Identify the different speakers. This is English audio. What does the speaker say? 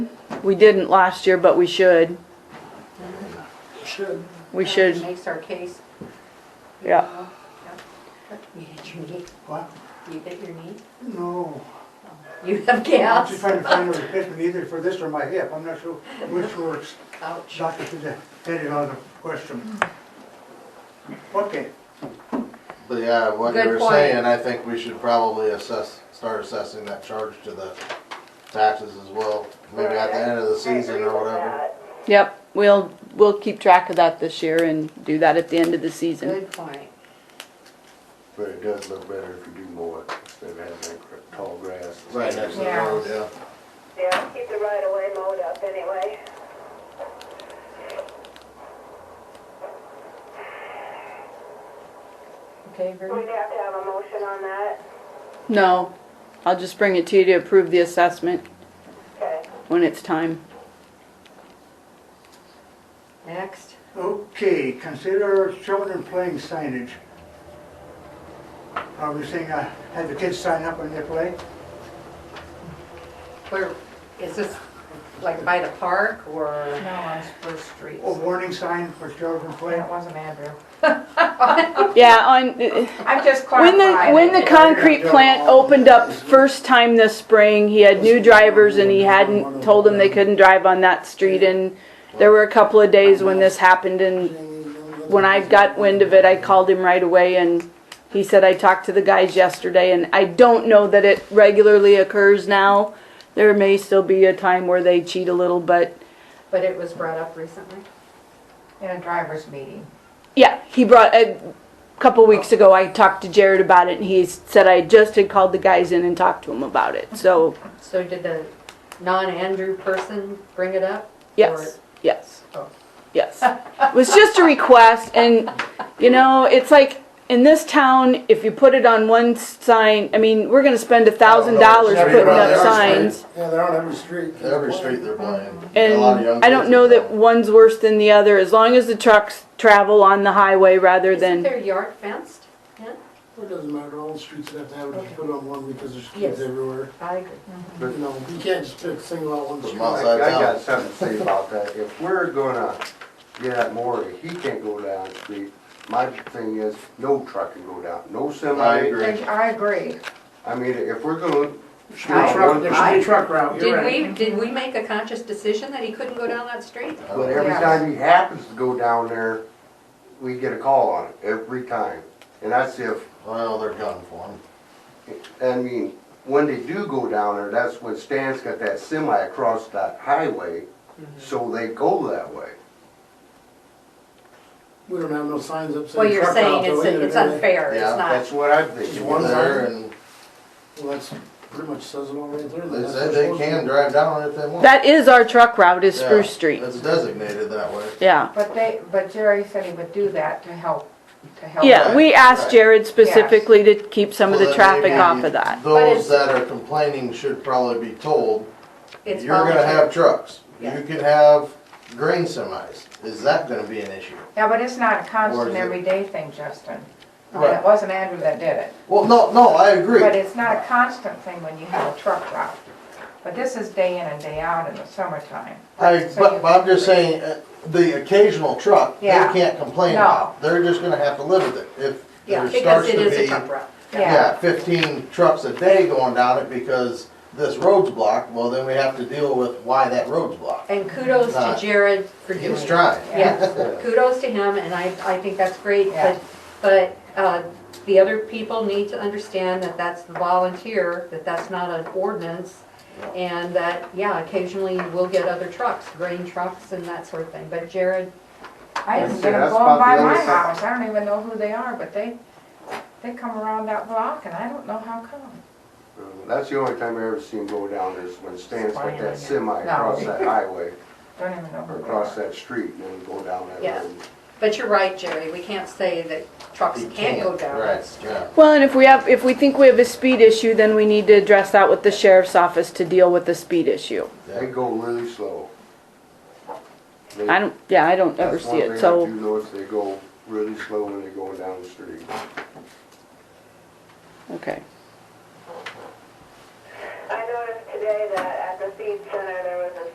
Speaker 1: We didn't last year, but we should.
Speaker 2: Should.
Speaker 1: We should,
Speaker 3: Makes our case.
Speaker 1: yeah.
Speaker 3: You hit your knee,
Speaker 2: What?
Speaker 3: you hit your knee,
Speaker 2: No.
Speaker 3: you have
Speaker 2: I'm
Speaker 3: gas.
Speaker 2: just trying to find a replacement either for this or my hip. I'm not sure which works.
Speaker 3: Ouch.
Speaker 2: Doctor did that, headed out of question. Okay,
Speaker 4: But yeah, what you
Speaker 3: Good
Speaker 4: were
Speaker 3: point.
Speaker 4: saying, I think we should probably assess, start assessing that charge to the taxes as well. Maybe at the end of the season or whatever.
Speaker 1: Yep, we'll, we'll keep track of that this year and do that at the end of the season.
Speaker 3: Good point.
Speaker 5: But it does look better if you do mow it, instead of having that gr- tall grass.
Speaker 4: Right next to the
Speaker 3: Yeah.
Speaker 4: road, yeah.
Speaker 6: Yeah, keep the right of way mowed up anyway.
Speaker 3: Okay, very,
Speaker 6: We'd have to have a motion on that.
Speaker 1: No, I'll just bring it to you to approve the assessment
Speaker 6: Okay.
Speaker 1: when it's time.
Speaker 3: next.
Speaker 2: okay, consider children playing signage. Are we saying, uh, have the kids sign up when they play?
Speaker 3: Where, is this like by the park or? Oh,
Speaker 7: No, on Spruce Street.
Speaker 2: A warning sign for children playing?
Speaker 7: That wasn't Andrew.
Speaker 1: Yeah, on,
Speaker 7: I'm just
Speaker 1: When
Speaker 7: clarifying.
Speaker 1: the, when the concrete plant opened up first time this spring, he had new drivers and he hadn't told them they couldn't drive on that street and there were a couple of days when this happened and when I got wind of it, I called him right away and he said, I talked to the guys yesterday and I don't know that it regularly occurs now. There may still be a time where they cheat a little, but
Speaker 3: But it was brought up recently?
Speaker 7: In a driver's meeting.
Speaker 1: Yeah, he brought a couple weeks ago. I talked to Jared about it, and he said I just had called the guys in and talked to him about it. So
Speaker 3: So did the non-Andrew person bring it up?
Speaker 1: yes, yes,
Speaker 3: Oh.
Speaker 1: yes. It was just a request, and you know, it's like in this town, if you put it on one sign, I mean, we're gonna spend a thousand dollars
Speaker 4: Every-
Speaker 1: putting
Speaker 4: every
Speaker 1: up
Speaker 4: street.
Speaker 1: signs,
Speaker 8: Yeah, they're on every street.
Speaker 2: Mm-hmm.
Speaker 4: Every street they're playing. A lot of young
Speaker 1: and I don't
Speaker 4: kids
Speaker 1: know
Speaker 4: are
Speaker 1: that
Speaker 4: playing.
Speaker 1: one's worse than the other. As long as the trucks travel on the highway rather
Speaker 3: Or Isn't
Speaker 1: than
Speaker 3: their yard fenced? Yeah,
Speaker 8: It doesn't matter, all the streets have to have it put on one because there's
Speaker 3: Yes.
Speaker 8: kids everywhere.
Speaker 3: I agree.
Speaker 8: You know, you can't just pick, single out one
Speaker 4: Put 'em
Speaker 8: street.
Speaker 4: out.
Speaker 5: I I got something to say about that. If we're gonna get at Maury, he can't go down the street. My thing is, no truck can go down, no
Speaker 4: I
Speaker 5: semi.
Speaker 4: agree.
Speaker 7: I agree.
Speaker 5: I mean, if we're gonna,
Speaker 8: Street truck, there's street truck route, you're
Speaker 3: Did
Speaker 8: right.
Speaker 3: we, did we make a conscious decision that he couldn't go down that street?
Speaker 5: but every
Speaker 7: Yeah.
Speaker 5: time he happens to go down there, we get a call on it, every time. And that's if,
Speaker 4: Well, they're gunning for him.
Speaker 5: I mean, when they do go down there, that's when Stan's got that semi across that highway,
Speaker 3: Mm-hmm.
Speaker 5: so they go that way.
Speaker 8: We don't have no signs up
Speaker 3: Well,
Speaker 8: saying
Speaker 3: you're
Speaker 8: truck route
Speaker 3: saying
Speaker 8: though
Speaker 3: it's,
Speaker 8: either.
Speaker 3: it's
Speaker 8: do they?
Speaker 3: unfair, it's
Speaker 5: Yeah,
Speaker 3: not.
Speaker 5: That's what I'm
Speaker 8: Just
Speaker 5: thinking.
Speaker 8: one
Speaker 4: There,
Speaker 8: sign?
Speaker 4: and
Speaker 8: Well, that's pretty much says it all right there.
Speaker 4: they
Speaker 8: That's
Speaker 4: said
Speaker 8: what
Speaker 4: they
Speaker 8: it's
Speaker 4: can
Speaker 8: supposed
Speaker 4: drive down it if they want.
Speaker 1: that is our truck route is Spruce
Speaker 4: Yeah,
Speaker 1: Street.
Speaker 4: It's designated that way.
Speaker 1: Yeah.
Speaker 7: But they, but Jerry said he would do that to help, to
Speaker 3: Oh,
Speaker 7: help.
Speaker 1: Yeah, we asked
Speaker 4: Right.
Speaker 1: Jared specifically to keep some of
Speaker 4: Well,
Speaker 1: the
Speaker 4: then
Speaker 1: traffic
Speaker 4: maybe
Speaker 1: off of that.
Speaker 4: Those that are complaining should probably be told,
Speaker 3: It's
Speaker 4: you're gonna
Speaker 3: voluntary.
Speaker 4: have trucks.
Speaker 3: Yeah.
Speaker 4: You could have grain semis. Is that gonna be an issue?
Speaker 7: Yeah, but it's not a
Speaker 4: Or is
Speaker 7: constant
Speaker 4: it-
Speaker 7: everyday thing, Justin. I mean,
Speaker 4: Right.
Speaker 7: it wasn't Andrew that did it.
Speaker 4: Well, no, no, I agree.
Speaker 7: But it's not a constant thing when you have a truck route. But this is day in and day out in the summertime.
Speaker 4: I,
Speaker 7: So
Speaker 4: but,
Speaker 7: you-
Speaker 4: but I'm just saying, uh, the occasional truck, they
Speaker 7: Yeah.
Speaker 4: can't complain
Speaker 7: No.
Speaker 4: about. They're just gonna have to live with it. If
Speaker 3: Yeah,
Speaker 4: there
Speaker 3: because
Speaker 4: starts
Speaker 3: it
Speaker 4: to
Speaker 3: is a
Speaker 4: be,
Speaker 3: truck route.
Speaker 7: Yeah.
Speaker 4: yeah, fifteen trucks a day going down it because this road's blocked, well, then we have to deal with why that road's blocked.
Speaker 3: And kudos to
Speaker 4: Not-
Speaker 3: Jared for doing
Speaker 4: He's
Speaker 3: it.
Speaker 4: trying.
Speaker 3: Yeah, kudos to him, and I, I think that's great, but, but, uh, the other people need to understand that that's the volunteer, that that's not an ordinance, and that, yeah, occasionally we'll get other trucks, grain trucks and that sort of thing, but Jared,
Speaker 7: I even
Speaker 5: Yeah,
Speaker 7: get them
Speaker 5: that's
Speaker 7: blown
Speaker 5: about
Speaker 7: by
Speaker 5: the
Speaker 7: my
Speaker 5: other side.
Speaker 7: house, I don't even know who they are, but they, they come around that block and I don't know how come.
Speaker 5: Uh, That's the only time I ever seen him go down is when Stan's got
Speaker 3: Spying on you.
Speaker 5: that semi across that highway,
Speaker 7: Don't even know
Speaker 5: or
Speaker 7: who they
Speaker 5: across
Speaker 7: are.
Speaker 5: that street, and then go down that
Speaker 3: Yeah.
Speaker 5: road.
Speaker 3: but you're right, Jerry, we can't say that trucks
Speaker 4: He
Speaker 3: can't go down that
Speaker 4: Right,
Speaker 3: street.
Speaker 4: yeah.
Speaker 1: Well, and if we have, if we think we have a speed issue, then we need to address that with the sheriff's office to deal with the speed issue.
Speaker 5: They go really slow. They-
Speaker 1: I don't, yeah, I don't ever
Speaker 5: That's
Speaker 1: see
Speaker 5: one thing
Speaker 1: it,
Speaker 5: I
Speaker 1: so,
Speaker 5: do notice, they go really slow when they're going down the street.
Speaker 1: okay.
Speaker 6: I noticed today that at the feed center, there was a